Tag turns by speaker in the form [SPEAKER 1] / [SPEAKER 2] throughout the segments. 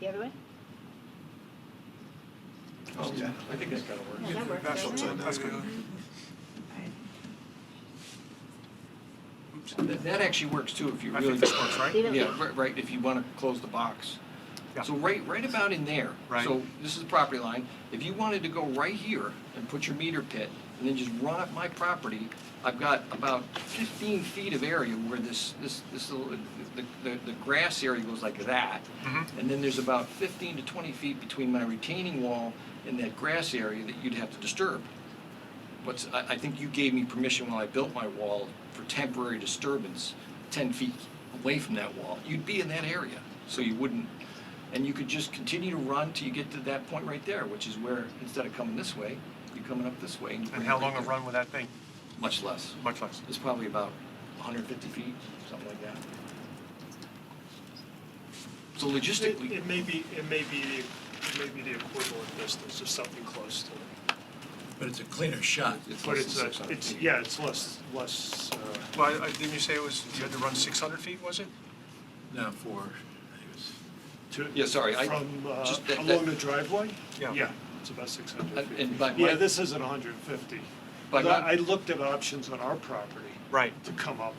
[SPEAKER 1] The other way?
[SPEAKER 2] Okay.
[SPEAKER 3] I think that's kind of works.
[SPEAKER 1] Yeah, that works,
[SPEAKER 2] That's
[SPEAKER 1] doesn't
[SPEAKER 2] what I'm
[SPEAKER 1] it?
[SPEAKER 2] saying, that's good.
[SPEAKER 1] Alright.
[SPEAKER 2] Oops.
[SPEAKER 3] That that actually works too, if you
[SPEAKER 2] I
[SPEAKER 3] really.
[SPEAKER 2] think this works, right?
[SPEAKER 1] Leave it.
[SPEAKER 3] Yeah, ri- right, if you want to close the box.
[SPEAKER 2] Yeah.
[SPEAKER 3] So right, right about in there.
[SPEAKER 2] Right.
[SPEAKER 3] So this is the property line. If you wanted to go right here and put your meter pit and then just run up my property, I've got about 15 feet of area where this, this, this little, the, the- the grass area goes like that.
[SPEAKER 2] Mhm.
[SPEAKER 3] And then there's about 15 to 20 feet between my retaining wall and that grass area that you'd have to disturb. What's, I, I think you gave me permission when I built my wall for temporary disturbance, ten feet away from that wall. You'd be in that area, so you wouldn't, and you could just continue to run till you get to that point right there, which is where, instead of coming this way, you're coming up this way. you
[SPEAKER 2] And
[SPEAKER 3] bring
[SPEAKER 2] how
[SPEAKER 3] it
[SPEAKER 2] long
[SPEAKER 3] right
[SPEAKER 2] a
[SPEAKER 3] there.
[SPEAKER 2] run would that be?
[SPEAKER 3] Much less.
[SPEAKER 2] Much less.
[SPEAKER 3] It's probably about hundred and fifty feet, something like that. So
[SPEAKER 4] It-
[SPEAKER 3] logistically,
[SPEAKER 4] It may be, it may be, the it may be the equivalent distance, or something close to it.
[SPEAKER 5] But it's a cleaner shot.
[SPEAKER 3] it's
[SPEAKER 4] But
[SPEAKER 3] less
[SPEAKER 4] it's,
[SPEAKER 3] than
[SPEAKER 4] a-
[SPEAKER 3] 600
[SPEAKER 4] it's,
[SPEAKER 3] feet.
[SPEAKER 4] yeah, it's less, less, uh,
[SPEAKER 2] Well, I- I- didn't you say it was, you had to run 600 feet, was it?
[SPEAKER 5] Now for, I think it was,
[SPEAKER 4] to.
[SPEAKER 3] Yeah, sorry, I-
[SPEAKER 4] From, uh,
[SPEAKER 3] just that-
[SPEAKER 4] along
[SPEAKER 3] that-
[SPEAKER 4] the driveway?
[SPEAKER 2] Yeah.
[SPEAKER 4] Yeah, it's about six hundred
[SPEAKER 3] And-
[SPEAKER 4] feet.
[SPEAKER 3] and by my-
[SPEAKER 4] Yeah, this isn't hundred and fifty.
[SPEAKER 3] By my-
[SPEAKER 4] I looked at options on our property.
[SPEAKER 2] Right.
[SPEAKER 4] To come up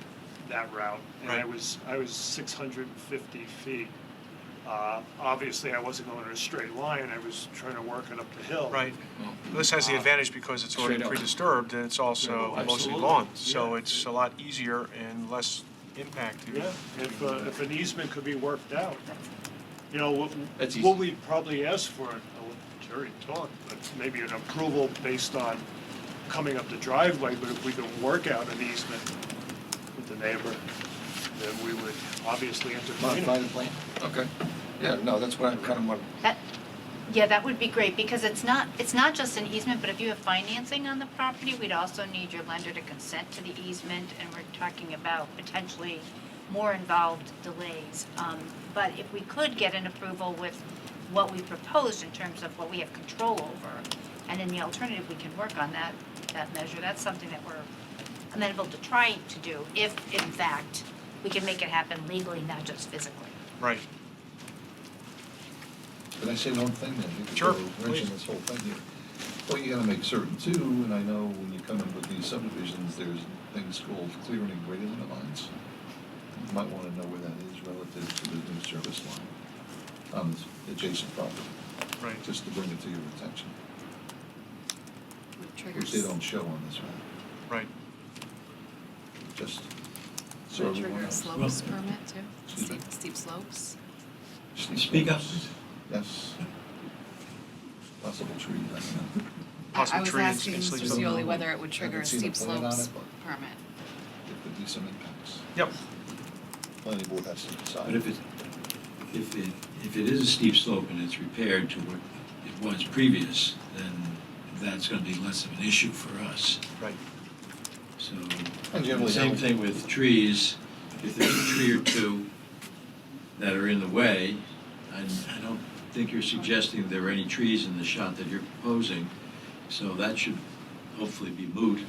[SPEAKER 4] that route, and I
[SPEAKER 2] Right.
[SPEAKER 4] was, I was six hundred and fifty feet. Uh, Obviously, I wasn't going in a straight line, I was trying to work it up the hill.
[SPEAKER 2] Right.
[SPEAKER 3] Well,
[SPEAKER 2] This has the advantage because it's already
[SPEAKER 3] Straight up.
[SPEAKER 2] pre-disturbed and it's also
[SPEAKER 3] Yeah,
[SPEAKER 2] mostly
[SPEAKER 3] absolutely.
[SPEAKER 2] lawn. So
[SPEAKER 4] Yeah.
[SPEAKER 2] it's a lot easier and less impact. to-
[SPEAKER 4] Yeah, if, uh, if an easement could be worked out, you know, what,
[SPEAKER 3] That's easy.
[SPEAKER 4] what we probably ask for, I'll let Jerry talk, but maybe an approval based on coming up the driveway, but if we can work out an easement with the neighbor, then we would obviously entertain
[SPEAKER 3] modify
[SPEAKER 4] it.
[SPEAKER 3] the plan. Okay, yeah, no, that's what I kind of want,
[SPEAKER 1] That, yeah, that would be great, because it's not, it's not just an easement, but if you have financing on the property, we'd also need your lender to consent to the easement, and we're talking about potentially more involved delays. Um, but if we could get an approval with what we proposed in terms of what we have control over, and then the alternative, we can work on that, that measure, that's something that we're amenable to trying to do, if in fact, we can make it happen legally, not just physically.
[SPEAKER 2] Right.
[SPEAKER 6] Can I say one thing then? You could
[SPEAKER 2] Sure,
[SPEAKER 6] go wrenching
[SPEAKER 2] please.
[SPEAKER 6] this whole thing here. Well, you gotta make certain too, and I know when you come in with these subdivisions, there's things called clearing and grading lines. You might wanna know where that is relative to the new service line on this adjacent property,
[SPEAKER 2] Right.
[SPEAKER 6] just to bring it to your attention,
[SPEAKER 1] Which
[SPEAKER 6] which they don't show on this one,
[SPEAKER 2] Right.
[SPEAKER 6] just so
[SPEAKER 7] Would
[SPEAKER 6] everyone
[SPEAKER 7] trigger a
[SPEAKER 6] knows.
[SPEAKER 7] slopes permit too?
[SPEAKER 6] Excuse me?
[SPEAKER 7] Steep, steep slopes?
[SPEAKER 6] Just these
[SPEAKER 5] Speak up,
[SPEAKER 6] things. Yes. Possible tree, I don't know.
[SPEAKER 7] I-
[SPEAKER 2] Possible trees
[SPEAKER 7] I was asking
[SPEAKER 2] and
[SPEAKER 7] Mr.
[SPEAKER 2] sleeps
[SPEAKER 6] on
[SPEAKER 7] Scioli
[SPEAKER 6] them.
[SPEAKER 7] whether it would trigger a
[SPEAKER 6] Haven't seen a
[SPEAKER 7] steep
[SPEAKER 6] plan on
[SPEAKER 7] slopes
[SPEAKER 6] it, but-
[SPEAKER 7] permit.
[SPEAKER 6] There could be some impacts.
[SPEAKER 2] Yep.
[SPEAKER 6] Planning board has to decide.
[SPEAKER 5] but Uh, if it, if it, if it is a steep slope and it's repaired to what it was previous, then that's gonna be less of an issue for us.
[SPEAKER 2] Right.
[SPEAKER 5] So,
[SPEAKER 6] And generally
[SPEAKER 5] same
[SPEAKER 6] how-
[SPEAKER 5] thing with trees, if there's a tree or two that are in the way, I, I don't think you're suggesting there are any trees in the shot that you're proposing, so that should hopefully be moot.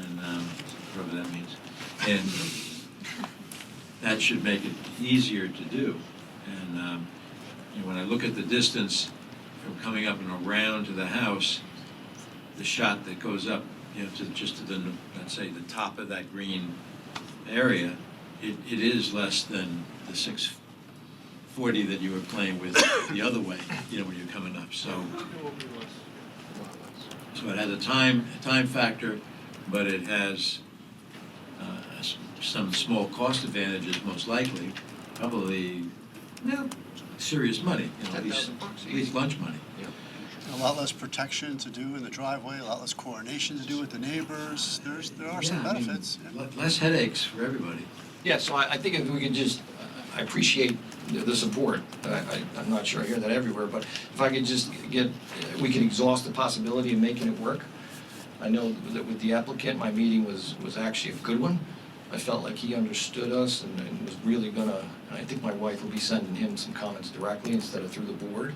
[SPEAKER 5] And, um, whatever that means. And that should make it easier to do. And, um, you know, when I look at the distance from coming up and around to the house, the shot that goes up, you know, to just to the, let's say, the top of that green area, it, it is less than the six forty that you were playing with the other way, you know, when you're coming up, so. So it has a time, a time factor, but it has, uh, s- some small cost advantages most likely, probably, no, serious money, you know, at least,
[SPEAKER 3] 10,000 bucks
[SPEAKER 5] at least lunch money.
[SPEAKER 8] A lot less protection to do in the driveway, a lot less coordination to do with the neighbors. There's, there are some
[SPEAKER 5] Yeah, I mean,
[SPEAKER 8] benefits.
[SPEAKER 5] le- Less headaches for everybody.
[SPEAKER 3] Yeah, so I, I think if we could just, uh, I appreciate the, the support, I, I, I'm not sure I hear that everywhere, but if I could just get, uh, we can exhaust the possibility of making it work. I know that with the applicant, my meeting was, was actually a good one. I felt like he understood us and, and was really gonna, and I think my wife will be sending him some comments directly instead of through the board,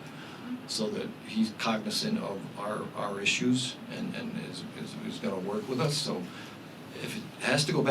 [SPEAKER 3] so that he's cognizant of our, our issues and, and is, is, is gonna work with us, so if it has to go back